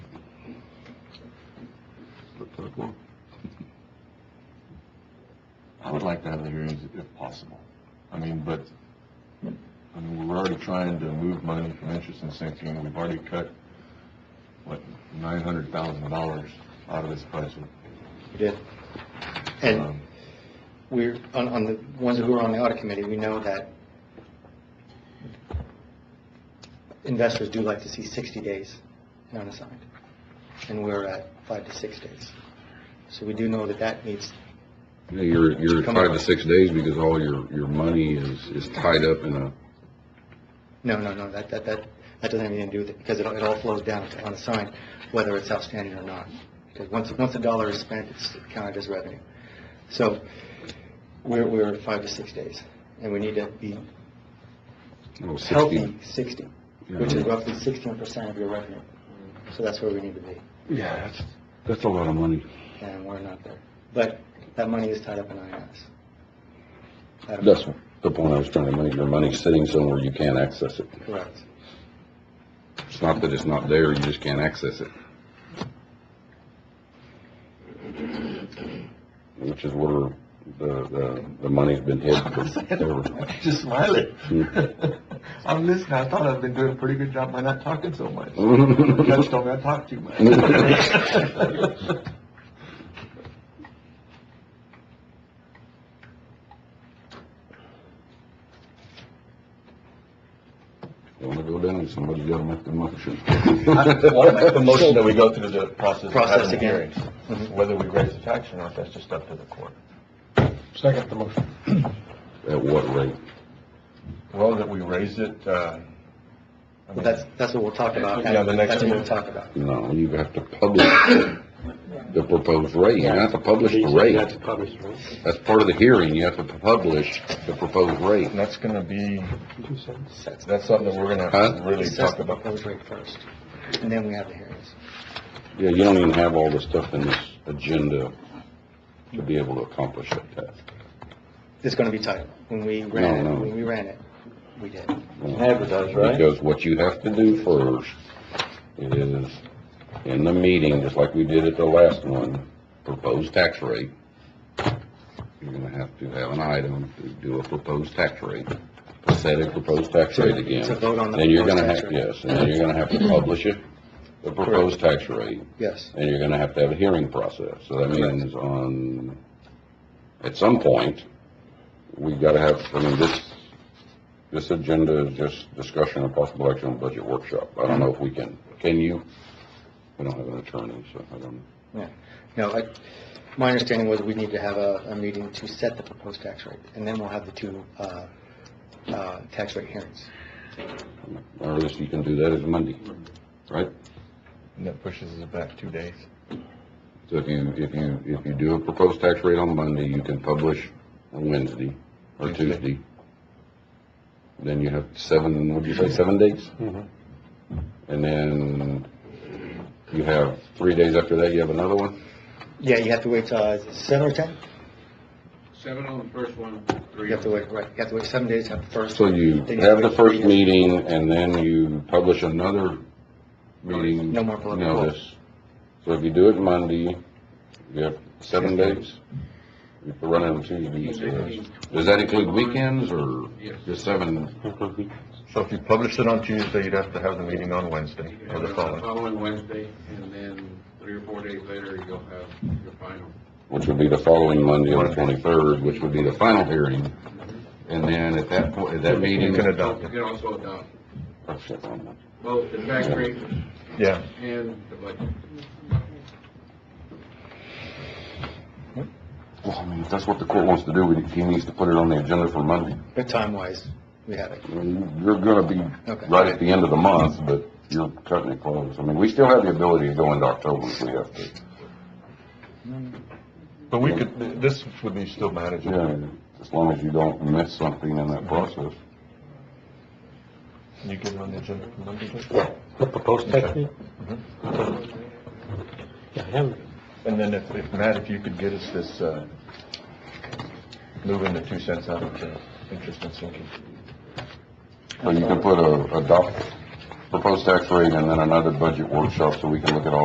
Well, I would like to have the hearings if possible. I mean, but, I mean, we're already trying to move money from interest and sinking. We've already cut, what, nine hundred thousand dollars out of this budget. We did. And Um, we're, on, on the ones who are on the audit committee, we know that investors do like to see 60 days in unassigned, and we're at five to six days. So we do know that that needs, Yeah, you're, you're Come five on. to six days because all your, your money is, is tied up in a, no, no, no, that, that, that, that doesn't have anything to do with it, because it, all- it all flows down to unassigned, whether it's outstanding or not. Because once, once a dollar is spent, it's counted as revenue. So we're, we're at five to six days, and we need to be you know, sixty. healthy 60, Yeah. which is roughly 16% of your revenue. So that's where we need to be, Yeah, that's, that's a lot of money. and we're not there. But that money is tied up in INS. I don't- That's the point I was trying to make. Your money's sitting somewhere you can't access it. Correct. It's not that it's not there, you just can't access it. Which is where the, the, the money's been hid forever. Just smiling. I'm listening. I thought I've been doing a pretty good job by not talking so much. The judge told me I talk too much. Don't wanna go down, somebody's gotta make the motion. Well, I make the motion that we go through the process of Process having the again. hearings. Whether we raise the tax or not, that's just up to the court. Second the motion. At what rate? Well, that we raise it, uh, I Well, mean, that's, that's what we'll talk about. Yeah, the next That's what we'll one. talk about. No, you have to publish the proposed rate. You have to publish the rate. That's part of the hearing. You have to publish the proposed rate. and that's gonna be, Sets- that's something that we're gonna have to Huh? really sets talk the about. proposed rate first, and then we have the hearings. Yeah, you don't even have all the stuff in this agenda to be able to accomplish that task. It's going to be tight. When we ran it, no. when we ran it, we did. Advertise, Because what you have to do first is, in the meeting, just like we did at the last one, proposed tax rate. You're gonna have to have an item to do a proposed tax rate, to set a proposed tax rate again. To vote on the Then you're gonna proposed have, yes, tax rate. and then you're gonna have to publish it, the proposed tax rate. Yes, and you're gonna have to have a hearing process. So that means on, at some point, we gotta have, I mean, this, this agenda is just discussion of possible action on budget workshop. I don't know if we can, can you? We don't have an attorney, so I don't, yeah. No, I, my understanding was we need to have a, a meeting to set the proposed tax rate, and then we'll have the two, uh, uh, tax rate hearings. the earliest you can do that is Monday, right? And that pushes us back two days. So if you, if you, if you do a proposed tax rate on Monday, you can publish on Wednesday or Tuesday. Tuesday. Then you have seven, what'd you say, seven days? Mm-hmm. And then you have three days after that, you have another one? Yeah, you have to wait, uh, seven or 10? Seven on the first one, three. You have to wait, right, you have to wait seven days, have the first. So you Then have the wait first three- meeting and then you publish another meeting. No more public. Notice. So if you do it Monday, you have seven days. If you run it on Tuesday, does that include weekends or Yes. just seven? So if you publish it on Tuesday, you'd have to have the meeting on Wednesday You or have the it on the following. Following Wednesday, and then three or four days later, you'll have your final. which would be the following Monday, the twenty-third, which would be the final hearing. And then at that point, at that You meeting. can adopt You it, can also adopt Oh, shit, I'm not- both the tax rate yeah. and the budget. Well, I mean, if that's what the court wants to do, we- he needs to put it on the agenda for Monday. But time-wise, we have it. I mean, You're gonna be Okay. right at the end of the month, but you're cutting it close. I mean, we still have the ability to go into October if we have to. But we could, this would be still manageable. Yeah, as long as you don't miss something in that process. You give them the agenda for Monday? Judge? The proposed tax rate? Yeah, him. And then if, if, Matt, if you could get us this, uh, moving the two cents out of the interest and sinking. So you can put a, adopt proposed tax rate and then another budget workshop so we can look at all